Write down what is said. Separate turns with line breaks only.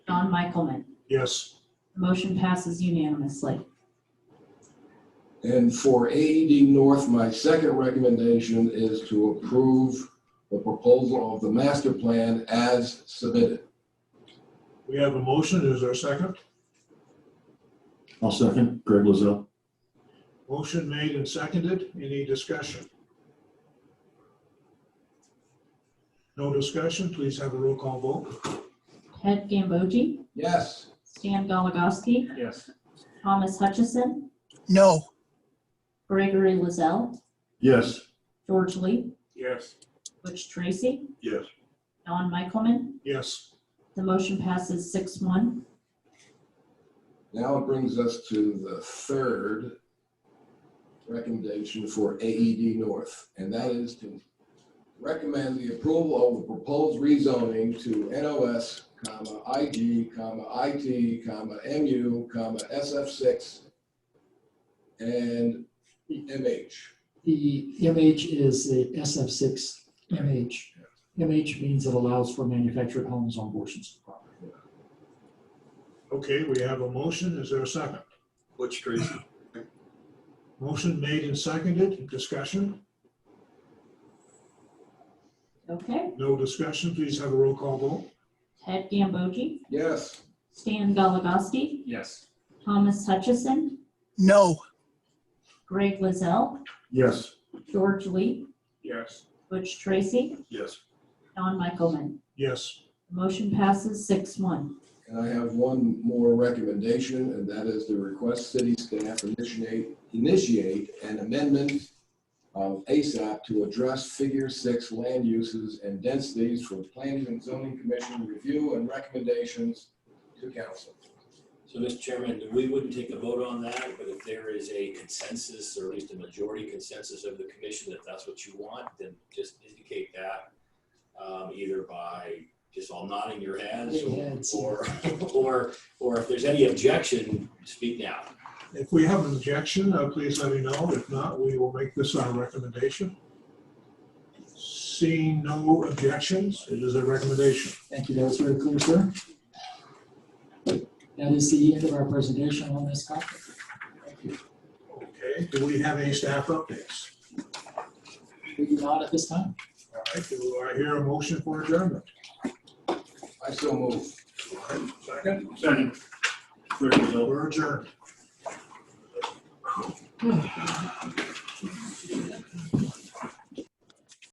Michaelman.
Yes.
The motion passes unanimously.
And for AED North, my second recommendation is to approve the proposal of the master plan as submitted.
We have a motion. Is there a second?
I'll second Greg Lozelle.
Motion made and seconded. Any discussion? No discussion. Please have a roll call vote.
Ted Gambogi,
Yes.
Stan Galagowski,
Yes.
Thomas Hutchison,
no,
Gregory Lizell,
Yes.
George Lee,
Yes.
Butch Tracy,
Yes.
Don Michaelman.
Yes.
The motion passes six one.
Now it brings us to the third recommendation for AED North, and that is to recommend the approval of the proposed rezoning to NOS, comma, IG, comma, IT, comma, MU, comma, SF6, and MH.
The MH is the SF6 MH. MH means it allows for manufactured homes on portions of property.
Okay, we have a motion. Is there a second?
Butch Tracy.
Motion made and seconded. Discussion?
Okay.
No discussion. Please have a roll call vote.
Ted Gambogi,
Yes.
Stan Galagowski,
Yes.
Thomas Hutchison,
no.
Greg Lizell,
Yes.
George Lee,
Yes.
Butch Tracy,
Yes.
Don Michaelman.
Yes.
The motion passes six one.
And I have one more recommendation, and that is to request city staff initiate, initiate an amendment of ASAP to address figure six land uses and densities for planning and zoning commission review and recommendations to council.
So, Mr. Chairman, we wouldn't take a vote on that, but if there is a consensus, or at least a majority consensus of the commission, that that's what you want, then just indicate that um, either by just all nodding your heads,
Yeah, it's-
or, or, or if there's any objection, speak now.
If we have an objection, uh, please let me know. If not, we will make this our recommendation. Seeing no objections, it is a recommendation.
Thank you, that was very clear, sir. That is the end of our presentation on this topic.
Okay, do we have any staff updates?
We do not at this time.
All right, do I hear a motion for adjournment?
I so move.
Second,
Second. Greg Lozelle.
we're adjourned.